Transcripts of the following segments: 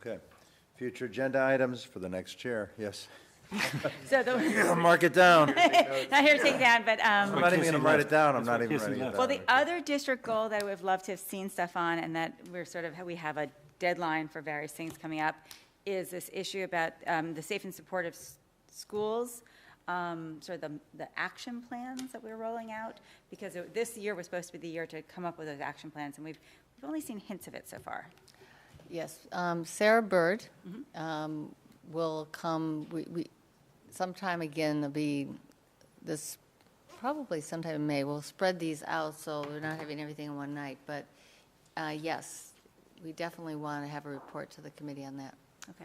Okay. Future agenda items for the next chair, yes. So the, Mark it down. I'm not here to take down, but, um, not even Casey gonna write it left. down, I'm That's not why even Casey writing it left. down. well, the other district goal that I would have loved to have seen stuff on, and that we're sort of, we have a deadline for various things coming up, is this issue about, um, the safe and supportive s- schools, um, sort of the, the action plans that we're rolling out, because it- this year was supposed to be the year to come up with those action plans, and we've, we've only seen hints of it so far. Yes, um, Sarah Bird um, will come, we, we- sometime again, it'll be this, probably sometime in May, we'll spread these out, so we're not having everything in one night, but uh, yes, we definitely want to have a report to the committee on that. Okay.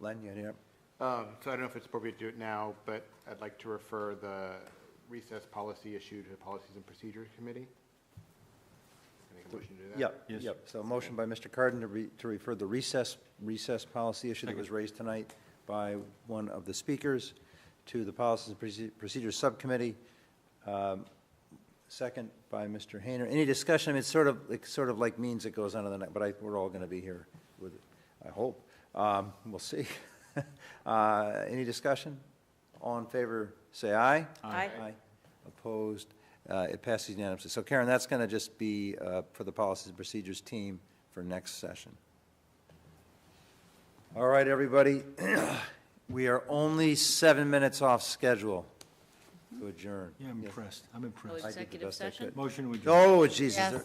Len, you here? Um, So I don't know if it's appropriate to do it now, but I'd like to refer the recess policy issue to the Policies and Procedures Committee. Can I make a motion to do that? Yep, yep. So a motion by Mr. Carden to re, to refer the recess, recess policy issue that was raised tonight by one of the speakers to the Policies and Proce- Procedures Subcommittee. Um, Second by Mr. Hayner. Any discussion? I mean, it's sort of, it's sort of like means it goes on to the next, but I, we're all gonna be here with it, I hope. Um, we'll see. Uh, any discussion? All in favor, say aye. Aye. Aye. Opposed? Uh, It passes unanimously. So Karen, that's going to just be uh, for the Policies and Procedures team for next session. All right, everybody, we are only seven minutes off schedule to adjourn. Yeah, I'm impressed. I'm impressed. I did the Executive best I session? could. Motion would. Oh, Jesus. Yes.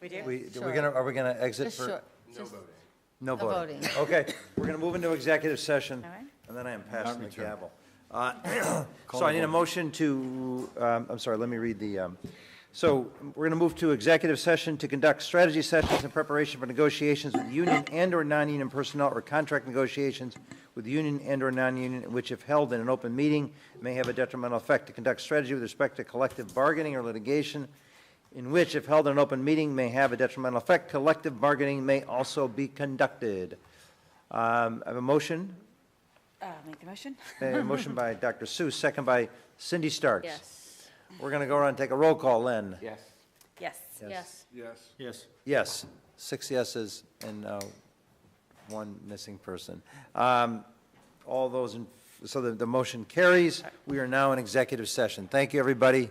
We do? We, Sure. we're gonna, are we going to exit Just for? short, No No voting. Okay, we're going to move into executive session, All right. and then I am passing the return. gavel. Uh, So I need a motion to, um, I'm sorry, let me read the, um, so we're going to move to executive session to conduct strategy sessions in preparation for negotiations with union and/or non-union personnel or contract negotiations with union and/or non-union, which if held in an open meeting, may have a detrimental effect to conduct strategy with respect to collective bargaining or litigation, in which if held in an open meeting, may have a detrimental effect. Collective bargaining may also be conducted. Um, I have a motion, Uh, make the motion? a motion by Dr. Seuss, second by Cindy Starks. Yes, We're going to go around and take a roll call, Len. Yes. Yes. yes. Yes. Yes, six yeses and uh, one missing person. Um, All those, in so the, the motion carries. We are now in executive session. Thank you, everybody.